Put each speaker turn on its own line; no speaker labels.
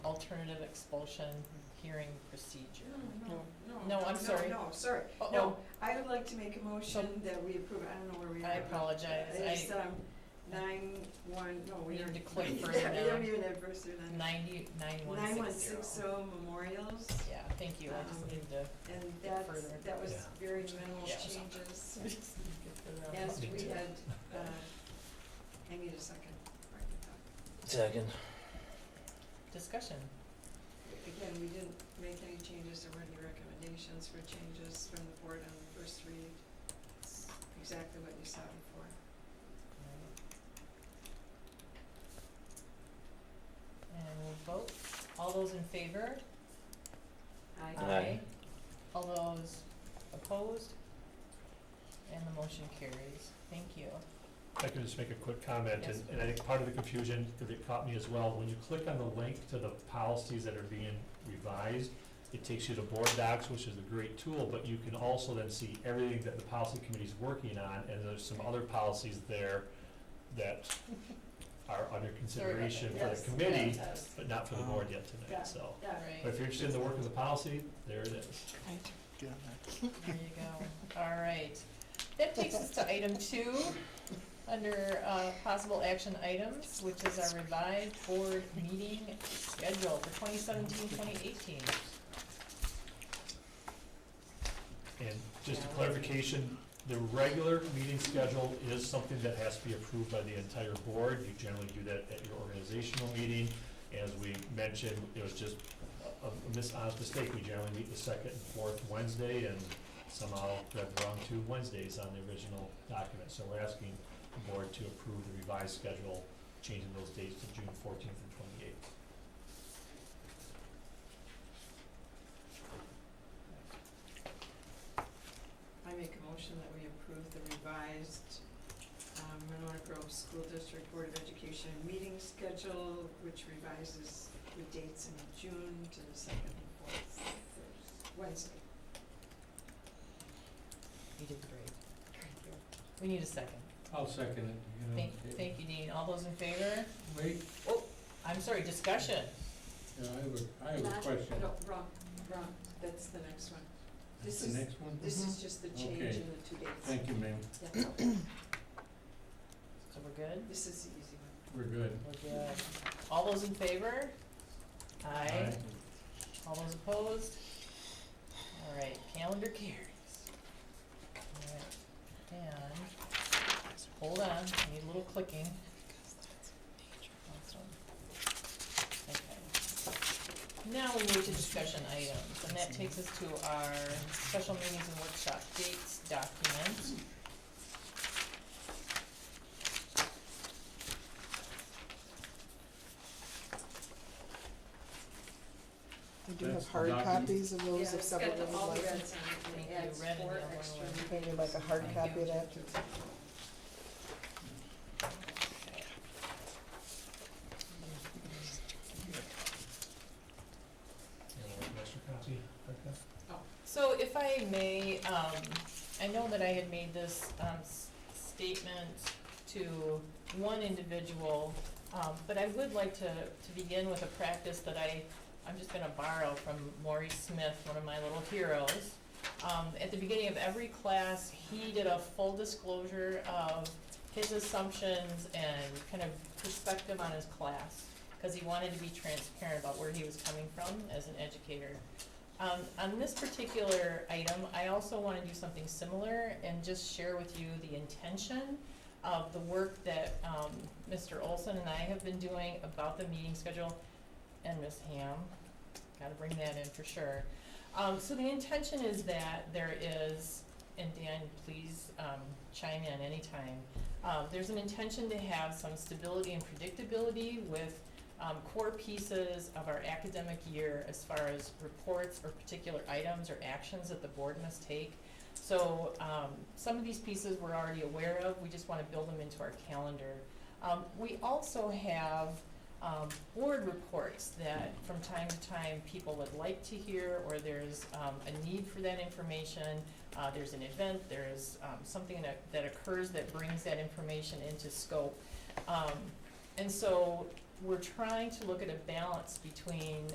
alternative expulsion hearing procedure.
No.
No, no, no.
No, I'm sorry.
No, sorry.
Oh,
No, I would like to make a motion that we approve, I don't know where we are.
I apologize.
It's,
I-
um, nine, one, no, we
We
don't.
need to click
yeah,
further
We don't
down.
even have first or none.
Ninety, nine
Nine
one
one
six
six
zero.
oh memorials,
Yeah, thank you, I just
Um,
need to.
and
Get
that's,
further.
that was
Yeah.
very minimal
Yeah.
changes.
Yes,
As we had, uh, I need a second. Mark,
Second.
Discussion.
Again, we didn't make any changes, there were any recommendations for changes from the board on the first read. It's Exactly what you saw before.
And we'll vote. All those in favor?
Aye.
All those opposed? And the motion carries. Thank you.
If I could just make a quick comment,
Yes.
and and I think part of the confusion, because it caught me as well, when you click on the link to the policies that are being revised, it takes you to Board Docs, which is a great tool, but you can also then see everything that the policy committee's working on, and there's some other policies there that are under consideration for the
Yes,
committee,
yes.
but not for the board yet tonight,
Yeah.
so.
Yeah.
But if
Right,
you're interested in the work of the policy, there it is.
there you go. All right. That takes us to item two, under uh, possible action items, which is our revised board meeting schedule for 2017-2018.
And just a clarification, the regular meeting schedule is something that has to be approved by the entire board. You generally do that at your organizational meeting. As we mentioned, it was just a a dishonest mistake. We generally meet the second and fourth Wednesday and somehow read wrong two Wednesdays on the original document. So we're asking the board to approve the revised schedule, changing those dates to June fourteenth and twenty-eighth.
I make a motion that we approve the revised um, Monona Grove School District Board of Education meeting schedule, which revises the dates in June to the second and fourth Thursday- Wednesday.
You did great. We need a second.
I'll second it. you know.
Thank, thank you, Dean. All those in favor?
Wait,
I'm sorry, discussion.
yeah, I have a, I have a
Not-
question.
No, wrong, wrong, that's the next one.
That's
This
the
is,
next one?
this is just the change
Okay.
in the two dates.
Thank you, ma'am.
Yeah.
So we're good?
This is the easy one.
We're good.
We're good. All those in favor? Aye. All those opposed? All right, calendar carries. All right, and, hold on, I need a little clicking. Awesome. Okay. Now we move to discussion items, and that takes us to our special meetings and workshop dates document.
We do have
That's the
hard
document.
copies of those
Yeah,
if
it's got
someone
the-
would
all the
like.
reds on it, and
Thank
it
you,
adds
red and
four
yellow
extra.
and-
Maybe like a hard
Thank
copy
you.
of that.
And an extra copy, Becca?
So if I may, um, I know that I had made this, um, s- statement to one individual, um, but I would like to, to begin with a practice that I, I'm just gonna borrow from Maury Smith, one of my little heroes. Um, at the beginning of every class, he did a full disclosure of his assumptions and kind of perspective on his class, cause he wanted to be transparent about where he was coming from as an educator. Um, on this particular item, I also want to do something similar and just share with you the intention of the work that, um, Mr. Olson and I have been doing about the meeting schedule and Ms. Ham. Gotta bring that in for sure. Um, so the intention is that there is, and Dan, please, um, chime in anytime. Uh, there's an intention to have some stability and predictability with um, core pieces of our academic year as far as reports or particular items or actions that the board must take. So, um, some of these pieces we're already aware of, we just wanna build them into our calendar. Um, we also have, um, board reports that from time to time people would like to hear, or there's, um, a need for that information. Uh, there's an event, there's, um, something that, that occurs that brings that information into scope. Um, and so, we're trying to look at a balance between